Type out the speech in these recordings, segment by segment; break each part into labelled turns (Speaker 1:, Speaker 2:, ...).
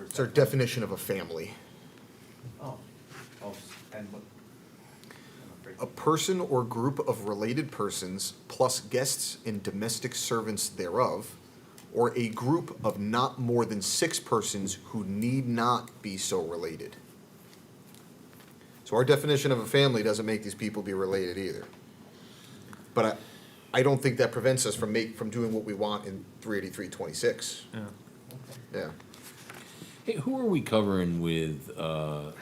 Speaker 1: It's our definition of a family.
Speaker 2: Oh, oh, s- and what? I'm afraid-
Speaker 3: Oh,
Speaker 1: A person or group of related persons, plus guests and domestic servants thereof, or a group of not more than six persons who need not be so related. So our definition of a family doesn't make these people be related either. But I, I don't think that prevents us from make, from doing what we want in three eighty-three twenty-six,
Speaker 4: Yeah.
Speaker 2: okay.
Speaker 1: yeah.
Speaker 3: Hey, who are we covering with uh,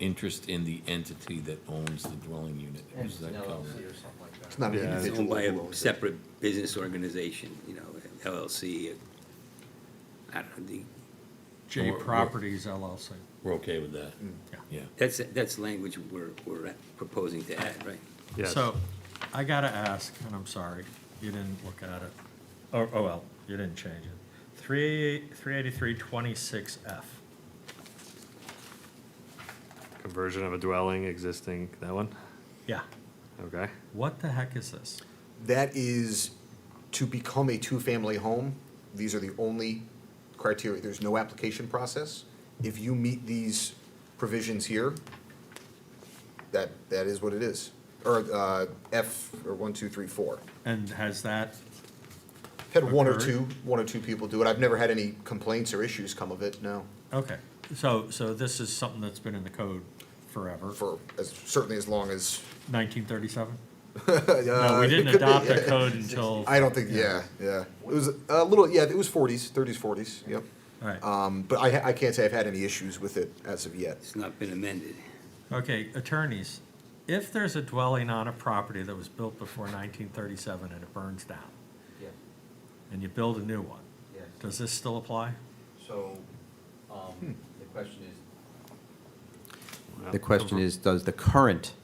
Speaker 3: interest in the entity that owns the dwelling unit?
Speaker 2: And
Speaker 3: Who's that
Speaker 2: an LLC or
Speaker 3: covering?
Speaker 2: something like that.
Speaker 1: It's not an
Speaker 4: Yeah.
Speaker 5: It's
Speaker 1: individual.
Speaker 5: owned by
Speaker 1: who owns
Speaker 5: a
Speaker 1: it.
Speaker 5: separate business organization, you know, an LLC. uh, I don't know, the-
Speaker 3: Or-
Speaker 6: J
Speaker 3: or-
Speaker 6: Properties LLC.
Speaker 3: We're okay with that?
Speaker 2: Mm.
Speaker 3: Yeah.
Speaker 5: that's, that's language we're, we're proposing to add, right?
Speaker 4: Yes.
Speaker 6: So, I gotta ask, and I'm sorry, you didn't look at it, oh, oh well, you didn't change it. Three, three eighty-three twenty-six F,
Speaker 4: Conversion of a dwelling existing, that one?
Speaker 6: yeah,
Speaker 4: Okay.
Speaker 6: what the heck is this?
Speaker 1: That is to become a two-family home. These are the only criteria. There's no application process. If you meet these provisions here, that, that is what it is. Or, uh, F, or one, two, three, four.
Speaker 6: And has that,
Speaker 1: Had one or
Speaker 6: Occurred.
Speaker 1: two, one or two people do it. I've never had any complaints or issues come of it, no.
Speaker 6: okay, so, so this is something that's been in the code forever,
Speaker 1: For, as, certainly as long as,
Speaker 6: nineteen thirty-seven? No,
Speaker 1: uh,
Speaker 6: we
Speaker 1: it
Speaker 6: didn't
Speaker 1: could be,
Speaker 6: adopt
Speaker 1: yeah.
Speaker 6: the code until,
Speaker 1: I don't think, yeah, yeah. It was a little, yeah, it was forties, thirties, forties, yep.
Speaker 6: alright,
Speaker 1: Um, but I, I can't say I've had any issues with it as of yet.
Speaker 5: It's not been amended.
Speaker 6: okay, attorneys, if there's a dwelling on a property that was built before nineteen thirty-seven and it burns down,
Speaker 2: Yeah,
Speaker 6: and you build a new one,
Speaker 2: yes.
Speaker 6: does this still apply?
Speaker 2: So, um, the question is,
Speaker 4: Well,
Speaker 7: Hmm. The question
Speaker 4: conver-
Speaker 7: is, does the current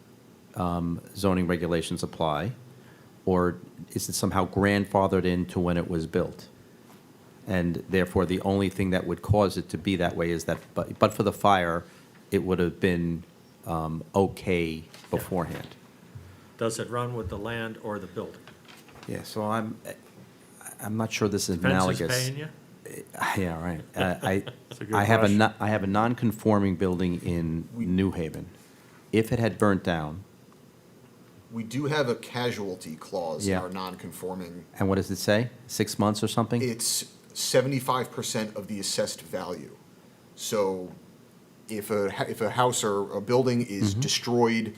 Speaker 7: um, zoning regulations apply? Or is it somehow grandfathered into when it was built? And therefore, the only thing that would cause it to be that way is that, but, but for the fire, it would have been um, okay beforehand.
Speaker 6: Does it run with the land or the building?
Speaker 7: Yeah, so I'm, I'm not sure this is
Speaker 6: Fence
Speaker 7: analogous.
Speaker 6: is paying you?
Speaker 7: Yeah, right. Uh, I,
Speaker 4: That's a good
Speaker 7: I have a,
Speaker 4: question.
Speaker 7: no- I have a non-conforming building in New Haven. If it had burnt down,
Speaker 1: We do have a casualty clause in
Speaker 7: Yeah.
Speaker 1: our non-conforming.
Speaker 7: and what does it say? Six months or something?
Speaker 1: It's seventy-five percent of the assessed value. So if a, ha- if a house or a building is destroyed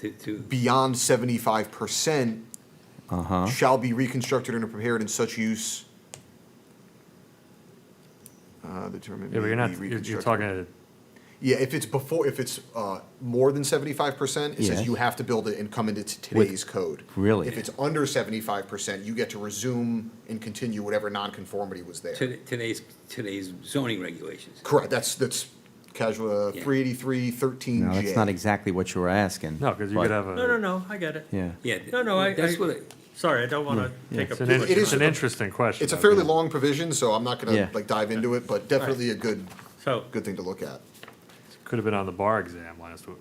Speaker 5: To, to,
Speaker 1: beyond seventy-five percent,
Speaker 7: Uh-huh.
Speaker 1: shall be reconstructed and prepared in such use. Uh, the term. may
Speaker 4: Yeah, but you're
Speaker 1: be
Speaker 4: not, you're, you're
Speaker 1: reconstructed.
Speaker 4: talking, a-
Speaker 1: Yeah, if it's before, if it's uh, more than seventy-five percent, it says
Speaker 7: Yes.
Speaker 1: you have to build it and come into t- today's code.
Speaker 7: really?
Speaker 1: If it's under seventy-five percent, you get to resume and continue whatever nonconformity was there.
Speaker 5: to- today's, today's zoning regulations.
Speaker 1: Correct. That's that's casual uh,
Speaker 5: Yeah.
Speaker 1: three eighty-three thirteen
Speaker 7: No, that's not exactly what you were asking.
Speaker 4: no, because you
Speaker 7: but-
Speaker 4: could have a.
Speaker 6: No, no, no, I get it.
Speaker 7: Yeah.
Speaker 5: Yeah.
Speaker 6: No, no, I-
Speaker 5: That's
Speaker 6: I-
Speaker 5: what, I-
Speaker 6: Sorry, I don't want to take up.
Speaker 4: Mm, It's an,
Speaker 6: too
Speaker 4: in-
Speaker 6: much
Speaker 1: It
Speaker 4: it's
Speaker 1: is-
Speaker 4: an
Speaker 6: time.
Speaker 4: interesting question.
Speaker 1: It's a
Speaker 4: though.
Speaker 1: fairly long provision, so I'm not gonna
Speaker 7: Yeah.
Speaker 1: like dive into it, but definitely a good
Speaker 6: So,
Speaker 1: good thing to look at.
Speaker 4: Could have been on the bar exam last week.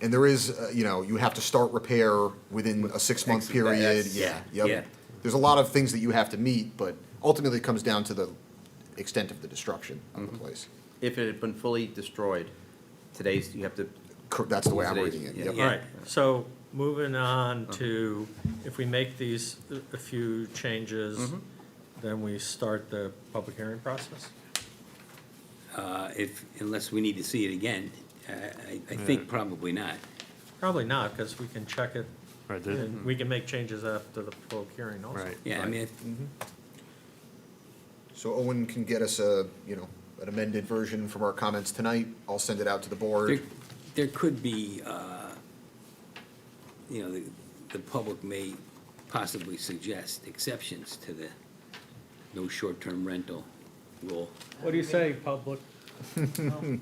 Speaker 1: And there is, uh, you know, you have to start repair within a six-month
Speaker 5: X-
Speaker 1: period.
Speaker 5: that's-
Speaker 1: Yeah,
Speaker 5: yeah,
Speaker 1: yep.
Speaker 5: yeah.
Speaker 1: There's a lot of things that you have to meet, but ultimately it comes down to the extent of the destruction of
Speaker 7: Mm-hmm.
Speaker 1: the place.
Speaker 7: If it had been fully destroyed, today's, you have to.
Speaker 1: Cor- That's the way I'm
Speaker 7: Today's-
Speaker 1: reading it.
Speaker 7: yeah.
Speaker 1: yep.
Speaker 6: all right, so moving on to, if we make these a few changes, then we start the public hearing process?
Speaker 5: uh, if, unless we need to see it again, I, I- I think probably not.
Speaker 6: Probably not, because we can check it,
Speaker 4: Right, there-
Speaker 6: and we can make changes after the public hearing also.
Speaker 4: right.
Speaker 5: Yeah, I mean,
Speaker 1: So Owen can get us a, you know, an amended version from our comments tonight. I'll send it out to the
Speaker 5: There,
Speaker 1: board.
Speaker 5: there could be, uh, you know, the, the public may possibly suggest exceptions to the no short-term rental rule.
Speaker 6: What do you say, public?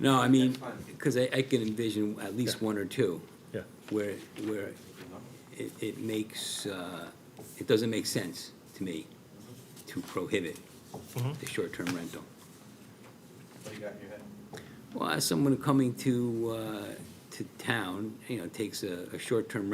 Speaker 5: No, I mean, because I, I can envision at least one or two
Speaker 6: Yeah,
Speaker 5: where, where it, it makes, uh, it doesn't make sense to me to prohibit the short-term rental.
Speaker 2: what do you got in your head?
Speaker 5: Well, as someone coming to, uh, to town, you know, takes a, a short-term